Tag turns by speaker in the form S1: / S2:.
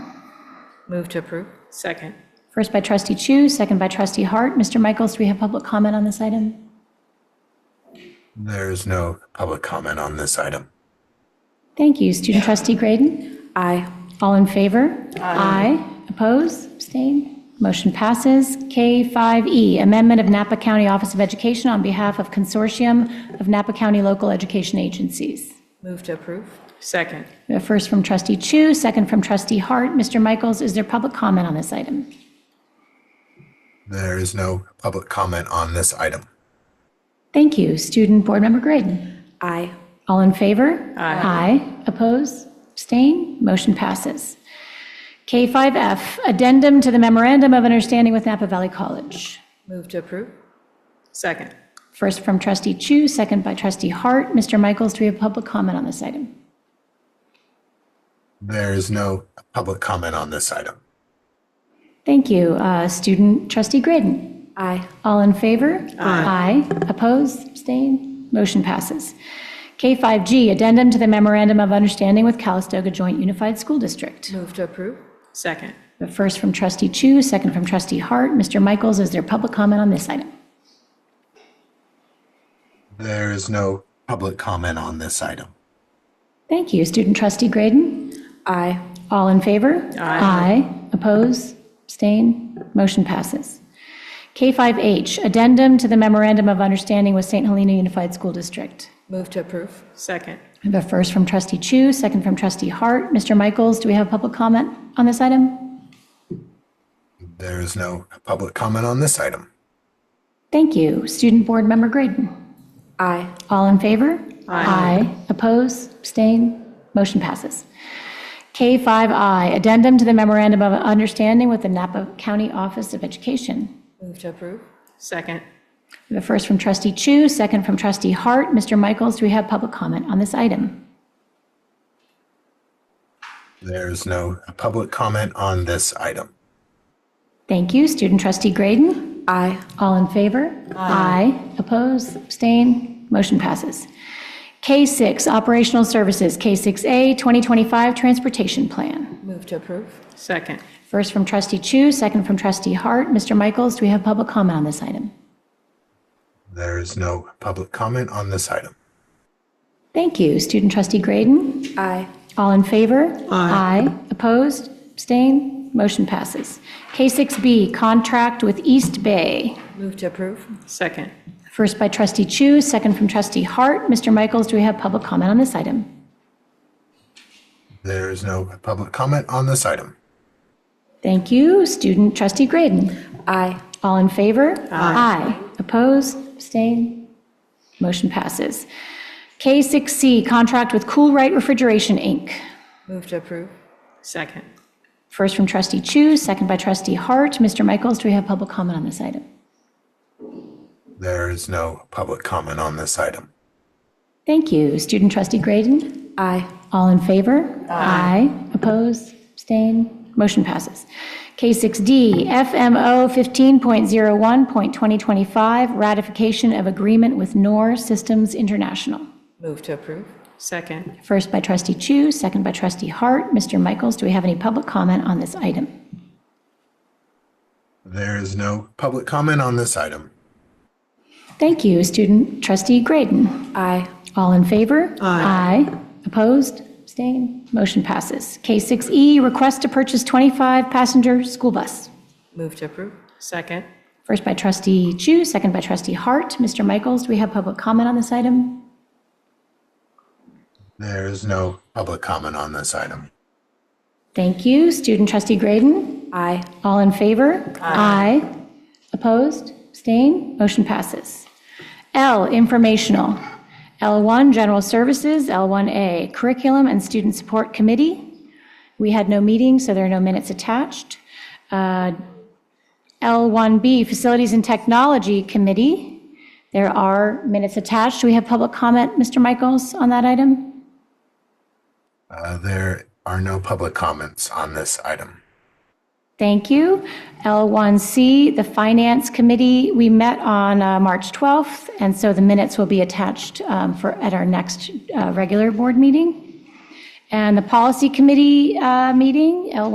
S1: Move to approve.
S2: Second.
S3: First by trustee Chu, second by trustee Hart. Mr. Michaels, do we have public comment on this item?
S4: There's no public comment on this item.
S3: Thank you. Student trustee Grayden?
S1: Aye.
S3: All in favor? Aye. Oppose? Abstain? Motion passes. K5E, Amendment of Napa County Office of Education on behalf of Consortium of Napa County Local Education Agencies.
S1: Move to approve.
S2: Second.
S3: We have first from trustee Chu, second from trustee Hart. Mr. Michaels, is there public comment on this item?
S4: There is no public comment on this item.
S3: Thank you. Student Board Member Grayden?
S1: Aye.
S3: All in favor? Aye. Oppose? Abstain? Motion passes. K5F, Addendum to the Memorandum of Understanding with Napa Valley College.
S1: Move to approve.
S2: Second.
S3: First from trustee Chu, second by trustee Hart. Mr. Michaels, do we have public comment on this item?
S4: There is no public comment on this item.
S3: Thank you. Uh, Student trustee Graydon.
S1: Aye.
S3: All in favor? Aye. Opposed? Abstain? Motion passes. K5G, Addendum to the Memorandum of Understanding with Calistoga Joint Unified School District.
S1: Move to approve.
S2: Second.
S3: The First from trustee Chu, second from trustee Hart. Mr. Michaels, is there public comment on this item?
S4: There is no public comment on this item.
S3: Thank you. Student trustee Graydon.
S1: Aye.
S3: All in favor? Aye. Oppose? Abstain? Motion passes. K5H, Addendum to the Memorandum of Understanding with St. Helena Unified School District.
S1: Move to approve.
S2: Second.
S3: I have a first from trustee Chu, second from trustee Hart. Mr. Michaels, do we have public comment on this item?
S4: There is no public comment on this item.
S3: Thank you. Student Board Member Graydon.
S1: Aye.
S3: All in favor? Aye. Oppose? Abstain? Motion passes. K5I, Addendum to the Memorandum of Understanding with the Napa County Office of Education.
S1: Move to approve.
S2: Second.
S3: We have a first from trustee Chu, second from trustee Hart. Mr. Michaels, do we have public comment on this item?
S4: There is no public comment on this item.
S3: Thank you. Student trustee Grayden?
S1: Aye.
S3: All in favor? Aye. Oppose? Abstain? Motion passes. K6, Operational Services, K6A, 2025 Transportation Plan.
S1: Move to approve.
S2: Second.
S3: First from trustee Chu, second from trustee Hart. Mr. Michaels, do we have public comment on this item?
S4: There is no public comment on this item.
S3: Thank you. Student trustee Grayden?
S1: Aye.
S3: All in favor? Aye. Opposed? Abstained? Motion passes. K6B, Contract with East Bay.
S1: Move to approve.
S2: Second.
S3: First by trustee Chu, second from trustee Hart. Mr. Michaels, do we have public comment on this item?
S4: There is no public comment on this item.
S3: Thank you. Student trustee Grayden.
S1: Aye.
S3: All in favor? Aye. Opposed? Abstained? Motion passes. K6C, Contract with Cool Right Refrigeration, Inc.
S1: Move to approve.
S2: Second.
S3: First from trustee Chu, second by trustee Hart. Mr. Michaels, do we have public comment on this item?
S4: There is no public comment on this item.
S3: Thank you. Student trustee Grayden?
S1: Aye.
S3: All in favor? Aye. Oppose? Abstain? Motion passes. K6D, FMO 15.01.2025, ratification of agreement with NOR Systems International.
S1: Move to approve.
S2: Second.
S3: First by trustee Chu, second by trustee Hart. Mr. Michaels, do we have any public comment on this item?
S4: There is no public comment on this item.
S3: Thank you. Student trustee Grayden?
S1: Aye.
S3: All in favor? Aye. Opposed? Abstained? Motion passes. K6E, request to purchase 25-passenger school bus.
S1: Move to approve.
S2: Second.
S3: First by trustee Chu, second by trustee Hart. Mr. Michaels, do we have public comment on this item?
S4: There is no public comment on this item.
S3: Thank you. Student trustee Grayden?
S1: Aye.
S3: All in favor? Aye. Opposed? Abstained? Motion passes. L, informational. L1, general services. L1A, curriculum and student support committee. We had no meeting, so there are no minutes attached. Uh, L1B, facilities and technology committee. There are minutes attached. Do we have public comment, Mr. Michaels, on that item?
S4: Uh, There are no public comments on this item.
S3: Thank you. L1C, the Finance Committee, we met on uh, March 12th, and so the minutes will be attached um, for, at our next uh, regular board meeting. And the Policy Committee uh, meeting, L1